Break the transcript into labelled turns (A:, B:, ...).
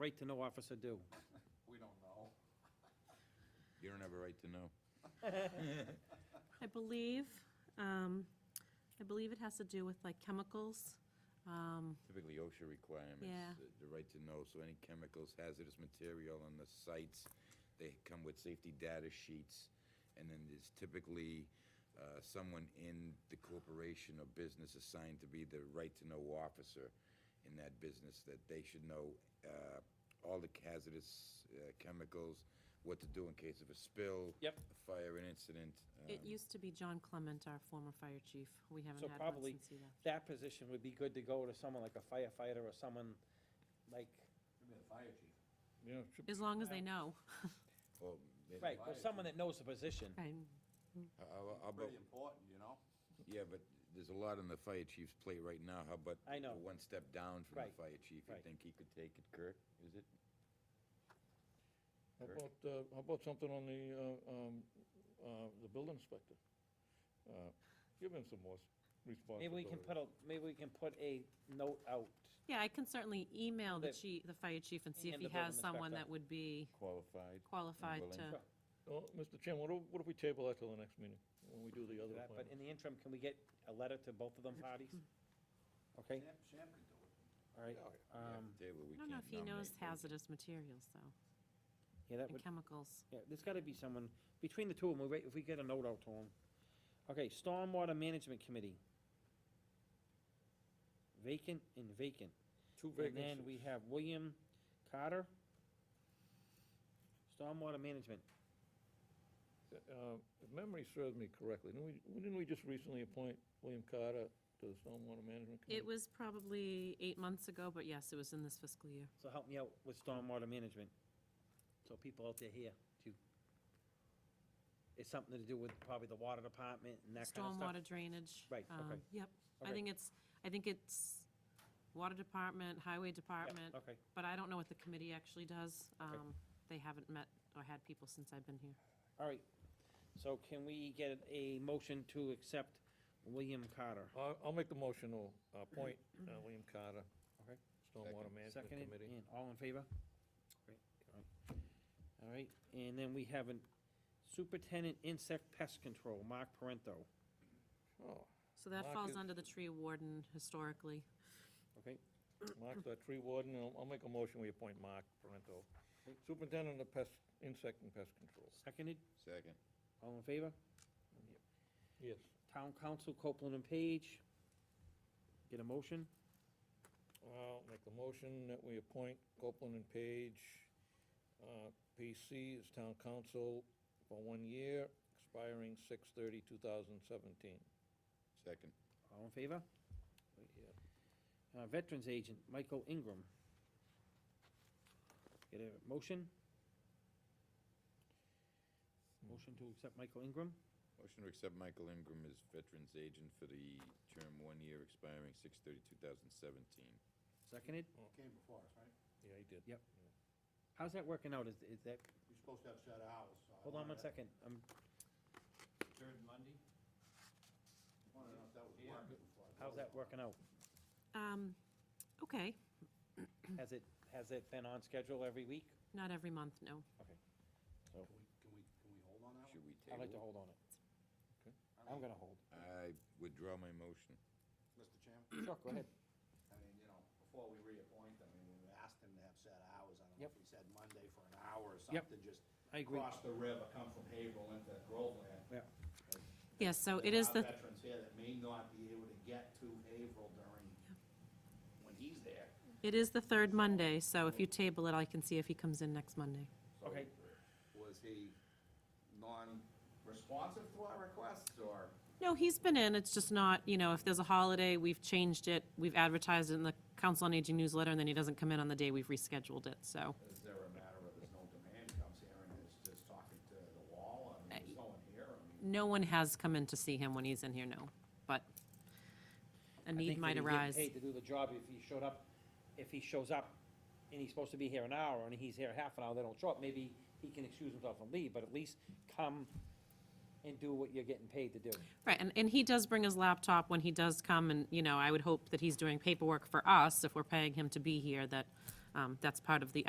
A: right-to-know officer do?
B: We don't know.
C: You don't have a right to know.
D: I believe, um, I believe it has to do with like chemicals. Um,
C: Typically OSHA requirements.
D: Yeah.
C: the- The right to know, so any chemicals, hazardous material on the sites, they come with safety data sheets. And then there's typically uh, someone in the corporation or business assigned to be the right to know officer in that business, that they should know uh, all the hazardous uh, chemicals, what to do in case of a spill.
A: Yep.
C: a Fire, an incident.
D: It
C: um,
D: used to be John Clement, our former fire chief. We
A: So
D: haven't had one
A: probably
D: since he left.
A: That position would be good to go to someone like a firefighter or someone like,
B: Could be the fire chief.
E: Yeah, it should-
D: As long as they know.
C: or maybe-
A: right, well, someone that knows the position.
D: I'm-
C: How- how- how about-
B: Pretty important, you know?
C: Yeah, but there's a lot on the fire chief's plate right now, how about?
A: I know.
C: the One step down from the
A: Right,
C: fire chief, you
A: right.
C: think he could take it, Kirk, is it?
E: How
C: Sure.
E: about, uh, how about something on the, uh, um, uh, the building inspector? Uh, Give him some more s- responsibility.
A: Maybe we can put a, maybe we can put a note out.
D: Yeah, I can certainly email the
A: The-
D: chief, the fire chief and see if
A: and
D: he
A: the building
D: has someone
A: inspector.
D: that would be
C: Qualified.
D: qualified
C: willing.
D: to,
A: Sure.
E: Well, Mr. Oh, Chairman, what if, what if we table that till the next meeting, when we do the
A: for
E: other
A: that, But
E: appointment?
A: in the interim, can we get a letter to both of them parties? Okay,
B: Sam, Sam could do it.
A: all right.
C: We have
A: um,
C: to table, we
D: I don't know
C: can't
D: if he knows
C: nominate those.
D: hazardous materials though,
A: Yeah, that
D: and
A: would,
D: chemicals.
A: yeah, there's gotta be someone, between the two of them, if we get a note out to them. Okay, Stormwater Management Committee. Vacant and vacant.
E: Two
A: And then we
E: vacancies.
A: have William Carter. Stormwater Management.
E: Uh, If memory serves me correctly, didn't we, didn't we just recently appoint William Carter to the Stormwater Management Committee?
D: It was probably eight months ago, but yes, it was in this fiscal year.
A: So help me out with stormwater management. So people out there here, do, it's something to do with probably the water department and that kind of stuff?
D: Stormwater drainage.
A: Right, okay.
D: um, Yep. I
A: Okay.
D: think it's, I think it's water department, highway
A: Yeah,
D: department,
A: Okay,
D: but I don't know what the committee actually does. Um, They haven't met or had people since I've been here.
A: all right. So can we get a motion to accept William Carter?
E: I'll, I'll make the motion to appoint uh, William Carter.
A: Okay.
E: Stormwater Management
A: Seconded,
E: Committee.
A: and all in favor? Great, all right. All right, and then we have a superintendent insect pest control, Mark Parento,
E: Oh,
D: So that
E: Mark
D: falls
E: is-
D: under the tree warden historically.
A: okay?
E: Mark's our tree warden, and I'll- I'll make a motion, we appoint Mark Parento, superintendent of pest, insect and pest control.
A: Seconded,
C: Second,
A: all in favor?
E: Yes.
A: Town council, Copeland and Page. Get a motion?
E: I'll make the motion that we appoint Copeland and Page, uh, PC as town council for one year, expiring 6 2017
C: second,
A: All in favor? Uh, Veterans Agent, Michael Ingram. Get a motion? Motion to accept Michael Ingram?
C: motion to accept Michael Ingram as veterans agent for the term one year expiring six thirty, two thousand seventeen.
A: Seconded?
B: Came before us, right?
E: Yeah, he did.
A: Yep. How's that working out? Is, is that,
B: You're supposed to have set hours. so I
A: hold on one
B: wanted-
A: second. Um,
B: Third Monday? I wanted to know if that was
A: Yeah.
B: working before. I
A: how's
B: voted.
A: that working out?
D: Um, Okay,
A: Has it, has it been on schedule every week?
D: not every month, no.
B: Can we, can we, can we hold on that one?
C: Should we
A: I'd like to
C: table?
A: hold on it.
B: I
A: I'm
B: mean,
A: gonna hold.
C: it? I withdraw my motion.
B: Mr. Chairman,
A: Sure, go ahead.
B: I mean, you know, before we reappoint them, I mean, we asked them to have set hours. I don't know
A: Yep.
B: if we said Monday for an hour or
A: Yep.
B: something, just
A: I agree.
B: cross the river, come from Haverhill into Groveland.
A: Yeah.
D: Yes, so
B: There
D: it is
B: are
D: the,
B: Veterans here that may not be able to get to Haverhill during, when he's there.
D: it is the third Monday, so if you table it, I can see if he comes in next Monday.
B: So,
A: Okay.
B: Was he non-responsive to our requests, or?
D: No, he's been in, it's just not, you know, if there's a holiday, we've changed it, we've advertised it in the Council on Aging newsletter, and then he doesn't come in on the day we've rescheduled it, so.
B: Is there a matter of there's no demand, comes here and is just talking to the wall, I mean, there's no one here, I mean,
D: No one has come in to see him when he's in here, no, but a
A: I
D: need
A: think that
D: might
A: he'd get
D: arise.
A: Paid to do the job if he showed up, if he shows up and he's supposed to be here an hour and he's here half an hour, they don't show up, maybe he can excuse himself and leave, but at least come and do what you're getting paid to do.
D: Right, and, and he does bring his laptop when he does come, and, you know, I would hope that he's doing paperwork for us, if we're paying him to be here, that, um, that's part of the